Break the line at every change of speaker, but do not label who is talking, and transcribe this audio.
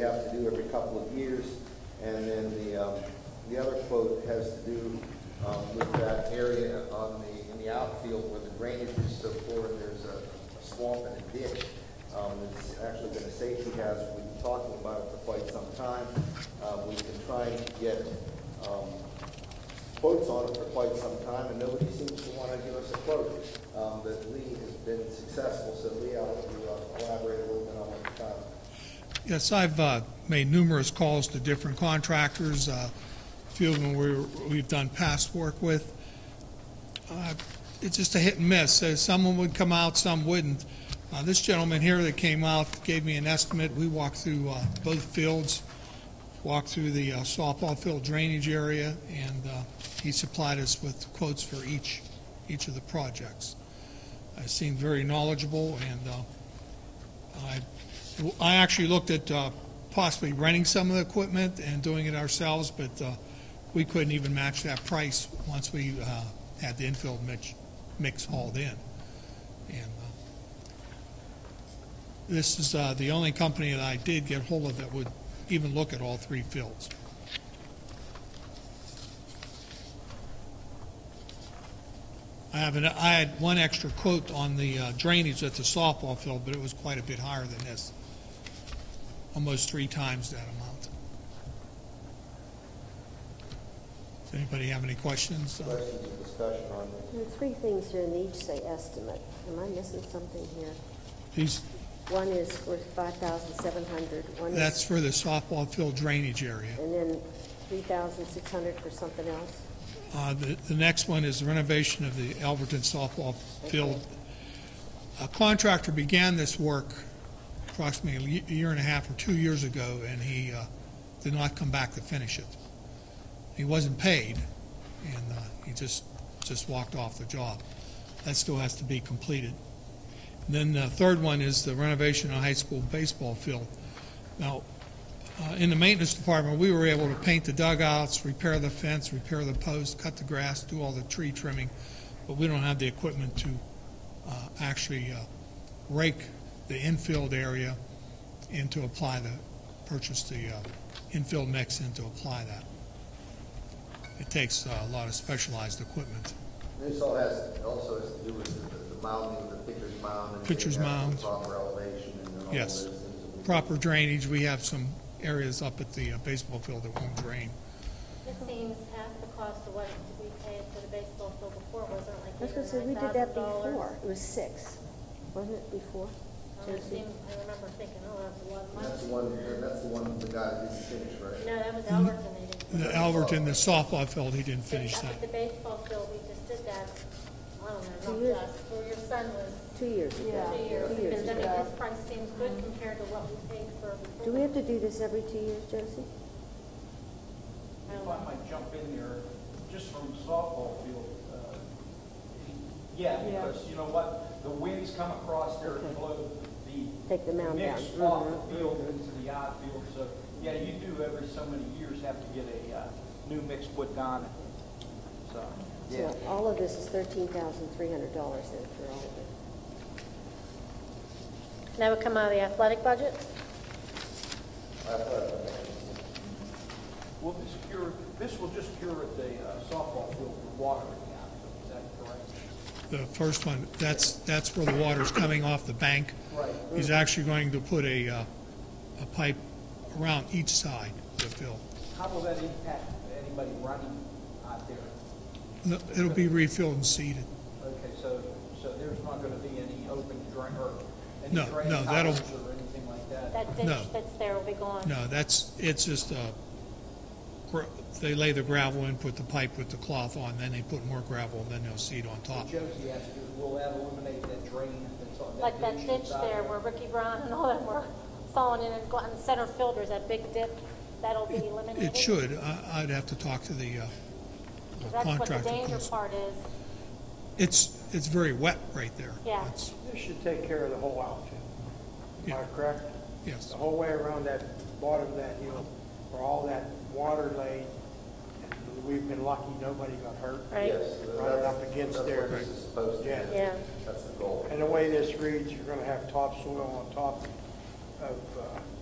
have to do every couple of years. And then the, um, the other quote has to do, um, with that area on the, in the outfield where the drainage is so poor and there's a swamp and a ditch. Um, it's actually been a safety hazard. We've been talking about it for quite some time. Uh, we've been trying to get, um, quotes on it for quite some time, and nobody seems to want to give us a quote. Um, But Lee has been successful, so Lee, I'll let you uh, elaborate a little bit on what you found.
Yes, I've uh, made numerous calls to different contractors, uh, a few of them we're- we've done past work with. Uh, It's just a hit and miss. Uh, Someone would come out, some wouldn't. Uh, This gentleman here that came out gave me an estimate. We walked through uh, both fields, walked through the uh, softball field drainage area, and uh, he supplied us with quotes for each, each of the projects. Uh, Seemed very knowledgeable, and uh, I well, I actually looked at uh, possibly renting some of the equipment and doing it ourselves, but uh, we couldn't even match that price once we uh, had the infield mix, mix hauled in. And uh, this is uh, the only company that I did get hold of that would even look at all three fields. I have an, I had one extra quote on the uh, drainage at the softball field, but it was quite a bit higher than this almost three times that amount. Does anybody have any questions? Uh,
Questions or discussion on it?
There are three things here, and they each say estimate. Am I missing something here?
These,
One is for five thousand seven hundred, one
that's
is,
for the softball field drainage area.
and then three thousand six hundred for something else?
Uh, The the next one is the renovation of the Alberton softball field. A contractor began this work approximately a ye- year and a half or two years ago, and he uh, did not come back to finish it. He wasn't paid, and uh, he just, just walked off the job. That still has to be completed. Then the third one is the renovation of high school baseball field. Now, uh, in the maintenance department, we were able to paint the dugouts, repair the fence, repair the post, cut the grass, do all the tree trimming, but we don't have the equipment to uh, actually uh, rake the infield area and to apply the, purchase the uh, infield mix and to apply that. It takes uh, a lot of specialized equipment.
This all has, also has to do with the- the mounding, the pitcher's mound. and getting
Pitcher's
that to the
mound.
Proper elevation and then all
Yes.
those things that we-
Proper drainage, we have some areas up at the uh, baseball field that won't drain.
This seems half the cost of what we paid for the baseball field before, wasn't it like
I was gonna say, we did that before. It was six, wasn't it, before?
Um, I remember thinking, oh, that was a lot of
And That's the
money.
one, and that's the one the guy didn't finish, right?
No, that was Alberton they did.
The Alberton, the softball field, he didn't
But
finish
up
that.
at the baseball field, we just did that, I don't
Two
know,
years.
not us, for your son was
Two years ago.
two years.
Two years
Because I mean,
ago.
his price seems good compared to what we paid for before.
Do we have to do this every two years, Josie?
If I might jump in there, just from softball field, uh, yeah, because you know what, the winds come across there and blow the.
Take the mound down. Mm-hmm.
Mix off the field into the outfield, so, yeah, you do every so many years have to get a, uh, new mix put on it, so.
Yeah.
So all of this is thirteen thousand three hundred dollars then for all of it.
That would come out of the athletic budget?
I thought-
Will this cure, this will just cure at the uh, softball field for water in the outfield, is that correct?
The first one, that's, that's where the water's coming off the bank.
Right.
He's actually going to put a, uh, a pipe around each side to fill.
How will that impact anybody running out there?
It'll be refilled and seeded.
Okay, so, so there's not gonna be any open drain, or any
No,
drain
no, that'll-
towers or anything like that?
That
No.
ditch that's there will be gone?
No, that's, it's just, uh, gra- they lay the gravel in, put the pipe with the cloth on, then they put more gravel, and then they'll seed on top.
Josie asked you, will that eliminate that drain that's on that
Like
ditch?
that ditch
that's out
there where Ricky Brown and all them were falling in and going, center fielders, that big dip, that'll be eliminated?
It should. I, I'd have to talk to the, uh, uh,
Because that's what the
contractor.
danger
close.
part is.
It's, it's very wet right there.
Yeah.
It's-
This should take care of the whole outfit. Am I
Yeah.
correct?
Yes.
The whole way around that bottom of that hill, where all that water lay, and we've been lucky, nobody got hurt.
Right.
Yes.
Right up against
that's
there.
what this is supposed to
Yeah.
do.
Yeah.
That's the goal.
And the way this reads, you're gonna have topsoil on top of, uh,